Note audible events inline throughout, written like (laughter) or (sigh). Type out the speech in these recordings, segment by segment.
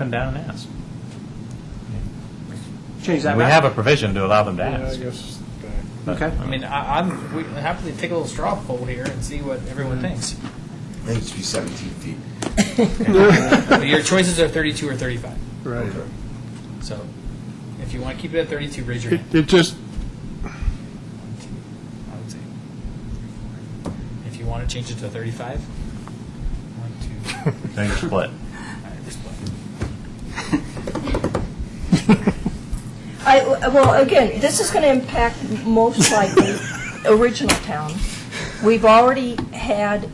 Come down and ask. Change that We back? have a provision to allow them to Yeah, I ask. guess. Okay. I mean, I, I'm we happily take a little straw poll here and see what everyone thinks. I think it should be 17 feet. But Your choices are 32 or 35. Right. So if you want to keep it at 32, raise your It, hand. it just, I would say. If you want to change it to 35, one, two, Then you split. all right, we're split. I, well, again, this is going to impact most likely original town. We've already had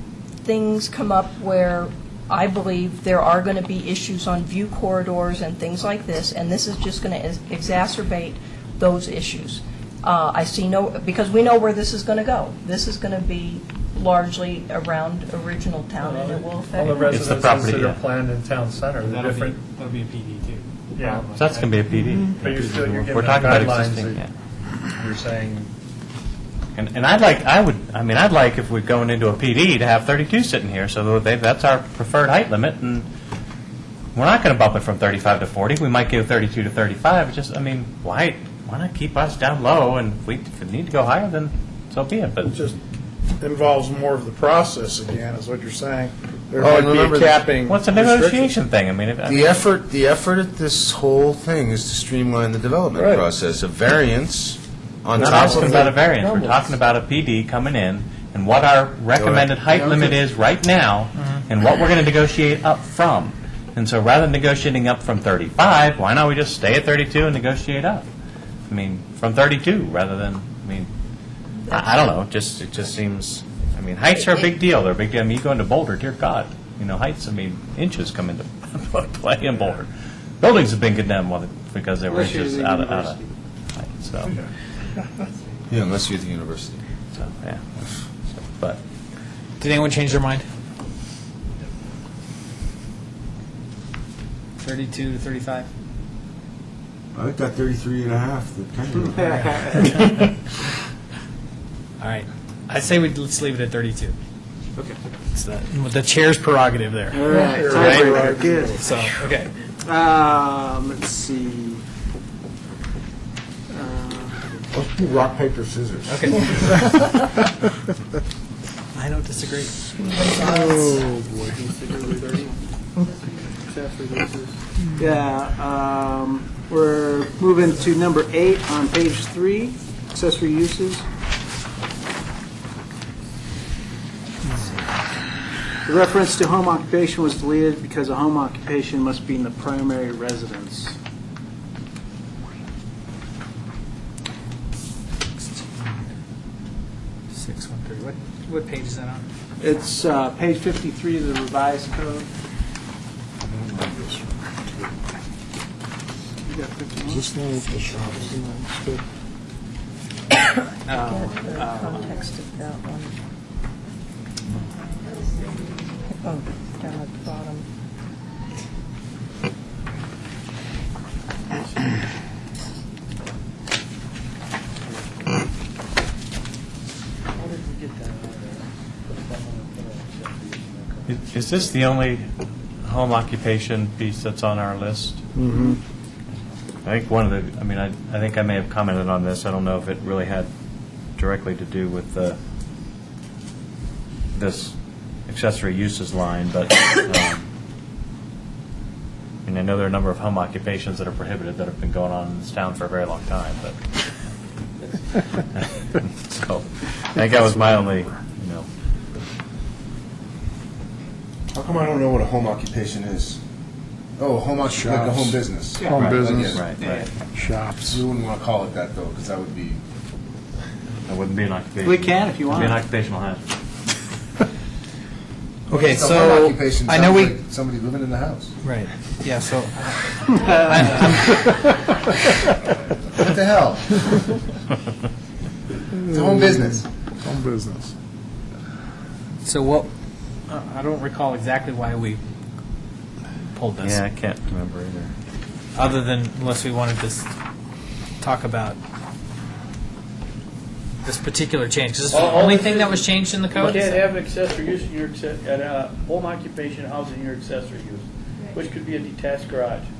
things come up where I believe there are going to be issues on view corridors and things like this, and this is just going to exacerbate those issues. Uh, I see no, because we know where this is going to go. This is going to be largely around original town, and it will All the affect. It's the residences that property, are yeah. planned in town center, the That'll be, different, that'll be a PD too. yeah. So that's going to be a PD. But you're still, you're We're giving them talking about guidelines existing, yeah. that you're saying, And, and I'd like, I would, I mean, I'd like if we're going into a PD to have 32 sitting here, so they, that's our preferred height limit, and we're not going to bump it from 35 to 40. We might go 32 to 35, It's just, I mean, why, why not keep us down low, and if we, if we need to go higher, then so be it, but. it just involves more of the process again, is what you're saying. There Oh, might and be remember a the- capping. What's a restriction. negotiation thing? I mean, if, The effort, the effort at this whole thing is to streamline the development Right. process. A variance on we're not top asking of about a the variance, we're talking about a PD coming in, and what our recommended height limit is right now, and what we're going to negotiate up from. And so rather than negotiating up from 35, why not we just stay at 32 and negotiate up? I mean, from 32, rather than, I mean, I, I don't know, just, it just seems, I mean, heights are a big deal, they're a big deal, I mean, you go into Boulder, dear God, you know, heights, I mean, inches come into (laughs) play in Boulder. Buildings have been condemned well, because they were Unless you're inches the out of, out university. of height, so. Yeah, unless you're at the university. So, yeah. But Did anyone change their mind? 32 to 35. I got 33 and a half. All right. I say we let's leave it at 32. Okay. It's the, the chair's prerogative there. All right, tiebreaker, good. So, okay. Um, let's see. Uh, Let's do rock, paper, scissors. Okay. I don't disagree. Oh, boy. Except for this is- Yeah, um, we're moving to number eight on page three, accessory uses. The reference to home occupation was deleted because a home occupation must be in the primary residence. Six one three. What what page is that on? It's uh, page 53 of the revised code. You got 51? Context of that one. Oh, down at the bottom. is is this the only home occupation piece that's on our list? Mm-hmm. I think one of the, I mean, I, I think I may have commented on this. I don't know if it really had directly to do with the, this accessory uses line, but, um, I mean, I know there are a number of home occupations that are prohibited that have been going on in this town for a very long time, but. (laughs) So, I think that was my only, you know, How come I don't know what a home occupation is? Oh, home occupation, like a home business. Home Right, business. yeah. right, right. Shops. We wouldn't want to call it that, though, because that would be, That wouldn't be an occupation. We can if you It'd be an want. occupational hazard. Okay, a home occupation I know sounds we like somebody living in the house. right. Yeah. So What the hell? It's a home business. Home business. so what? Uh, I don't recall exactly why we pulled this. Yeah, I can't remember either. Other than unless we wanted to s- talk about this particular change. 'Cause this is the only thing that was changed in the You code. can't have an accessory use in your, acce- an, uh, home occupation housing in your accessory use. which could be a detached garage.